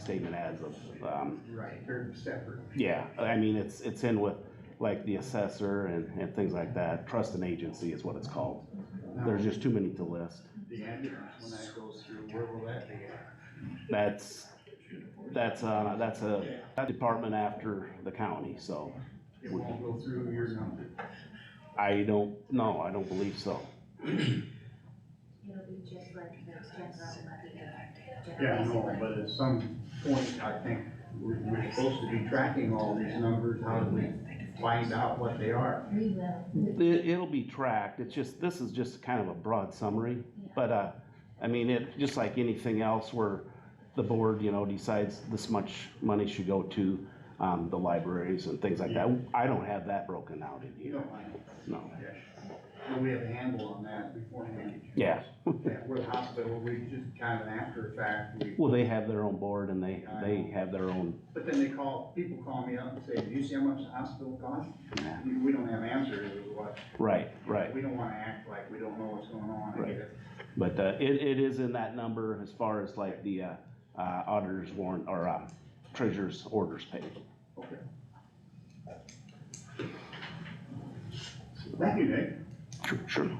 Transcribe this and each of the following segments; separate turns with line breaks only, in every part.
statement as of, um,
Right, they're separate.
yeah, I mean, it's, it's in with like the assessor and, and things like that. Trust and agency is what it's called. There's just too many to list.
The ambulance, when that goes through, where will that be at?
That's, that's, uh, that's a that department after the county, so
It won't go through your number.
I don't, no, I don't believe so.
It'll be just like the general levy.
Yeah, no, but at some point, I think, we're, we're supposed to be tracking all these numbers, how do we find out what they are?
We will.
It, it'll be tracked, it's just, this is just kind of a broad summary, but, uh, I mean, it, just like anything else where the board, you know, decides this much money should go to, um, the libraries and things like that, I don't have that broken out in
You
here,
don't mind,
no.
Jeff. Well, we have a handle on that beforehand.
Yeah,
Yeah, we're hospital, we just kind of after fact, we,
well, they have their own board and they, they have their own,
but then they call, people call me up and say, do you see how much the hospital costs? We don't have answers, is what,
right, right.
we don't wanna act like we don't know what's going on. I get it.
But, uh, it, it is in that number as far as like the, uh, uh, auditor's warrant, or, um, treasurer's orders paid.
Okay. Thank you, Nick.
Sure, sure.
You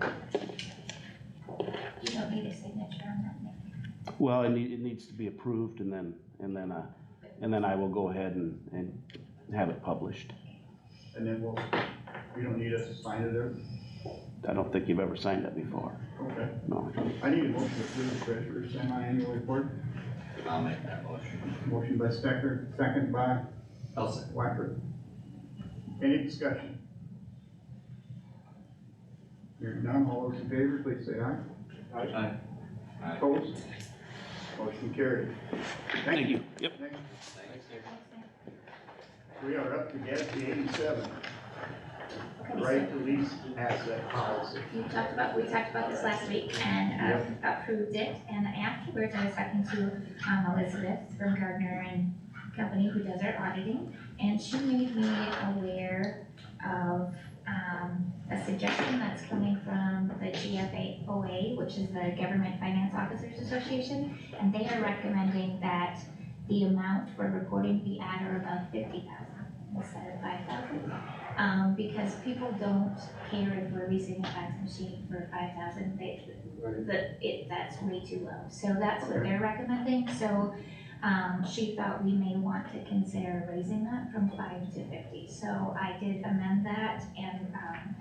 don't need a signature on that, Nick.
Well, it need, it needs to be approved and then, and then, uh, and then I will go ahead and, and have it published.
And then we'll, you don't need us to sign it there?
I don't think you've ever signed that before,
Okay.
no.
I need a motion to approve the treasurer's semi-annual report.
I'll make that motion.
Motion by Stecker, second by
I'll second.
Wacker. Any discussion? Hearing none, all those in favor, please say aye.
Aye. Aye.
Opposed? Motion carried.
Thank you. Yep.
Thank you.
Thanks.
We are up to GASB eighty-seven,
Okay, so
right to lease asset policy.
You talked about, we talked about this last week and um, approved it, and afterwards I was talking to um, Elizabeth from Gardner and Company who does our auditing, and she made me aware of um, a suggestion that's coming from the GFOA, which is the Government Finance Officers Association, and they are recommending that the amount for reporting be at or above fifty thousand instead of five thousand. Um, because people don't care if we're leasing a fax machine for five thousand, they, the, it, that's way too low. So that's what they're recommending, so, um, she thought we may want to consider raising that from five to fifty. So I did amend that and, um,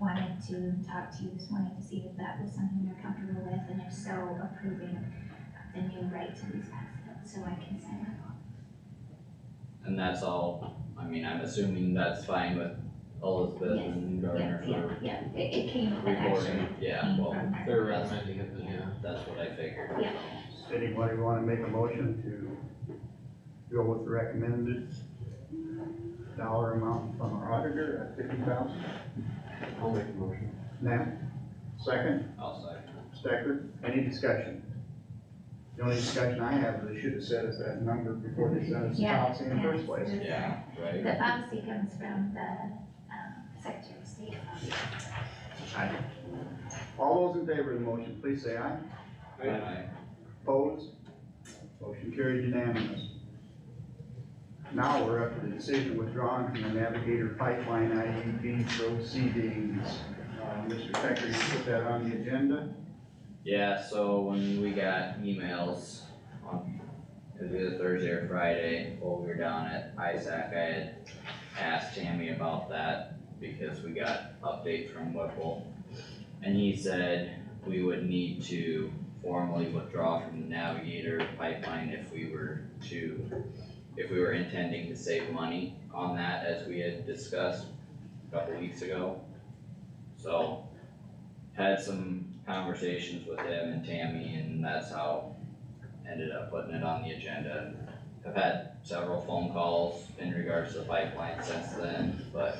wanted to talk to you this morning to see if that was something you're comfortable with, and if so, approving the new right to lease assets, so I can sign that off.
And that's all, I mean, I'm assuming that's fine with Elizabeth and
Yeah,
Gardner
yeah,
for
yeah, it, it came, it actually
recording, yeah,
came
well,
from her.
they're recommending it, then, yeah, that's what I figured.
Yeah.
Anybody wanna make a motion to go with the recommended dollar amount from our auditor at fifty thousand?
I'll make the motion.
Now, second,
I'll second.
Stecker, any discussion? The only discussion I have is they should have said us that number before they sent us the
Yeah,
policy in the first
yeah.
place.
it. Yeah, right?
The policy comes from the, um, Secretary of State.
Aye. All those in favor of the motion, please say aye.
Aye.
Opposed? Motion carried unanimous. Now we're up to the decision withdrawn from the Navigator Pipeline IUP proceedings. Uh, Mr. Stecker, you put that on the agenda?
Yeah, so when we got emails on, it was either Thursday or Friday, while we were down at Isaac, I had asked Tammy about that because we got updates from Whipple. And he said we would need to formally withdraw from the Navigator pipeline if we were to, if we were intending to save money on that as we had discussed a couple weeks ago. So had some conversations with him and Tammy, and that's how ended up putting it on the agenda. I've had several phone calls in regards to the pipeline since then, but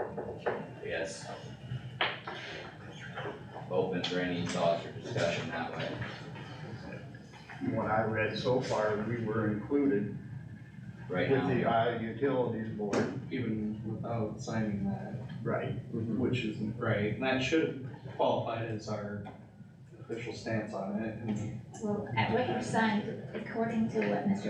I guess open for any thoughts or discussion that way.
From what I read so far, we were included
Right
with
now,
the
we are-
Iowa Utilities Board.
even without signing that,
Right.
which isn't right, and that should have qualified as our official stance on it, and
Well, at what you signed, according to what Mr.